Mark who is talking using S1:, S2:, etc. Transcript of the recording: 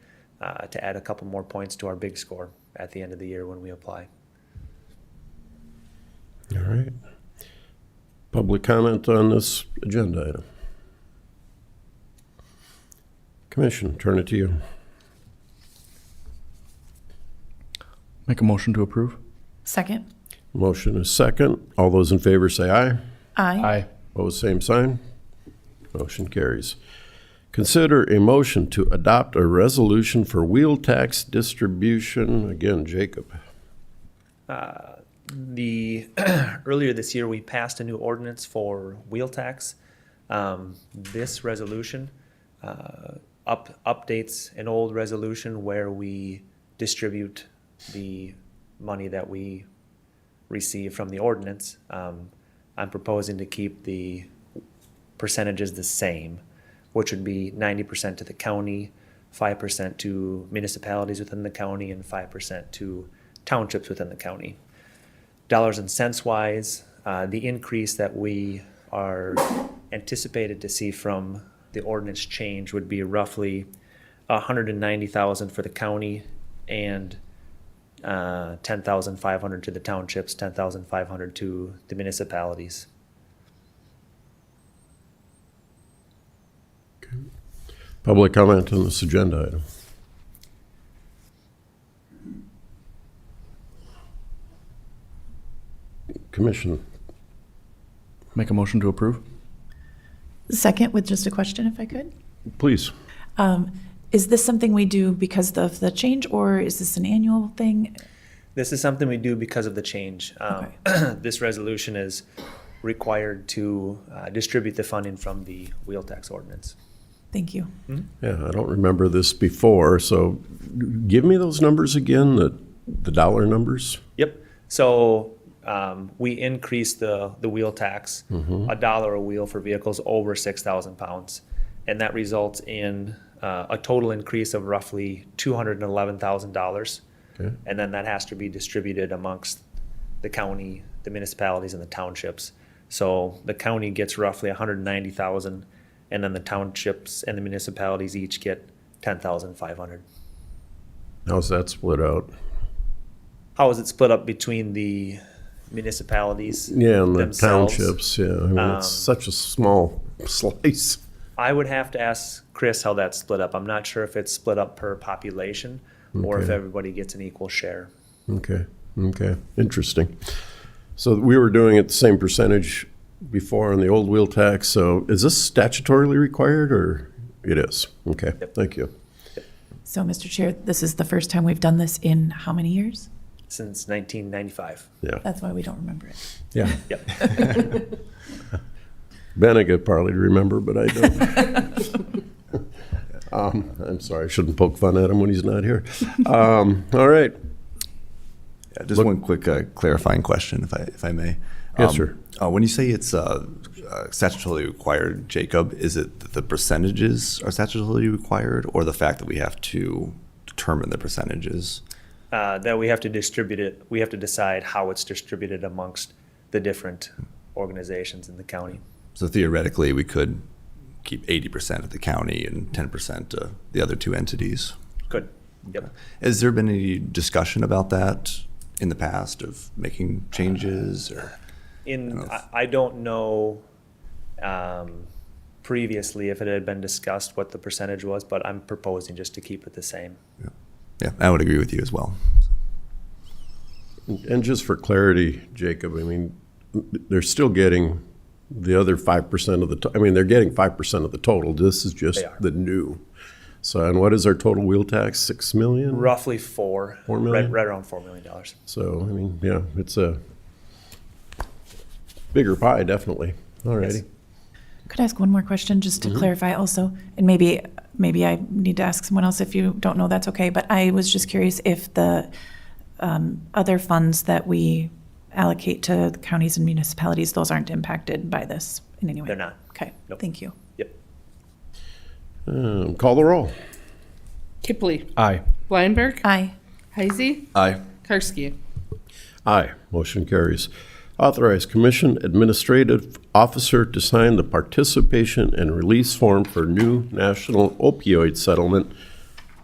S1: uh, to add a couple more points to our big score at the end of the year when we apply.
S2: All right. Public comment on this agenda item. Commission, turn it to you.
S3: Make a motion to approve?
S4: Second.
S2: Motion is second. All those in favor say aye.
S4: Aye.
S2: Opposed, same sign. Motion carries. Consider a motion to adopt a resolution for wheel tax distribution. Again, Jacob.
S1: the earlier this year we passed a new ordinance for wheel tax. Um, this resolution uh, up updates an old resolution where we distribute the money that we receive from the ordinance. Um, I'm proposing to keep the percentages the same, which would be ninety percent to the county, five percent to municipalities within the county, and five percent to townships within the county dollars and cents wise, uh, the increase that we are anticipated to see from the ordinance change would be roughly hundred and ninety thousand for the county and uh, ten thousand five hundred to the townships, ten thousand five hundred to the municipalities.
S2: Public comment on this agenda item. Commission,
S3: Make a motion to approve?
S4: Second with just a question, if I could.
S2: please.
S4: Um, Is this something we do because of the change, or is this an annual thing?
S1: This is something we do because of the change. Um, This resolution is required to uh, distribute the funding from the wheel tax ordinance.
S4: Thank you.
S2: Yeah, I don't remember this before, so give me those numbers again, the, the dollar numbers.
S1: Yep. So um, we increased the, the wheel tax, a dollar a wheel for vehicles over 6,000 pounds. And that results in uh, a total increase of roughly $211,000.
S2: Okay.
S1: And then that has to be distributed amongst the county, the municipalities, and the townships. So the county gets roughly 190,000, and then the townships and the municipalities each get 10,500.
S2: How's that split out?
S1: how is it split up between the municipalities
S2: Yeah, and the
S1: themselves?
S2: townships, yeah, I mean, it's such a small slice.
S1: I would have to ask Chris how that's split up. I'm not sure if it's split up per population or if
S2: Okay.
S1: everybody gets an equal share.
S2: Okay, okay, interesting. So we were doing it the same percentage before on the old wheel tax, so is this statutorily required, or it is? Okay, thank you.
S4: So, Mr. Chair, this is the first time we've done this in how many years?
S1: Since 1995.
S2: Yeah,
S4: That's why we don't remember it.
S2: yeah.
S1: Yep.
S2: Ben, I could probably remember, but I don't. Um, I'm sorry, I shouldn't poke fun at him when he's not here. Um, All right,
S5: Yeah, just one quick uh, clarifying question, if I if I may.
S2: Yes, sir.
S5: Uh, when you say it's uh, uh, statutorily required, Jacob, is it that the percentages are statutorily required, or the fact that we have to determine the percentages?
S1: Uh, that we have to distribute it, we have to decide how it's distributed amongst the different organizations in the county.
S5: So theoretically, we could keep eighty percent at the county and ten percent to the other two entities.
S1: Good. Yep.
S5: Has there been any discussion about that in the past of making changes or?
S1: In, I, I don't know um, previously if it had been discussed what the percentage was, but I'm proposing just to keep it the same.
S5: Yeah, I would agree with you as well.
S2: And just for clarity, Jacob, I mean, they're still getting the other five percent of the, to- I mean, they're getting five percent of the total. This is just
S1: They are.
S2: the new. So, and what is our total wheel tax? Six million?
S1: Roughly four.
S2: Four
S1: right-
S2: million?
S1: Right around four million dollars.
S2: So, I mean, yeah, it's a bigger pie, definitely. All righty.
S4: Could I ask one more question, just to clarify also? And maybe, maybe I need to ask someone else if you don't know, that's okay. But I was just curious if the um, other funds that we allocate to the counties and municipalities, those aren't impacted by this in any way?
S1: They're not.
S4: Okay,
S1: Nope.
S4: thank you.
S1: Yep.
S2: Um, Call the roll.
S6: Kipley.
S3: Aye.
S6: Blindberg.
S4: Aye.
S6: Heisey.
S5: Aye.
S6: Karski.
S2: Aye. Motion carries. Authorize Commission Administrative Officer to sign the participation and release form for new national opioid settlement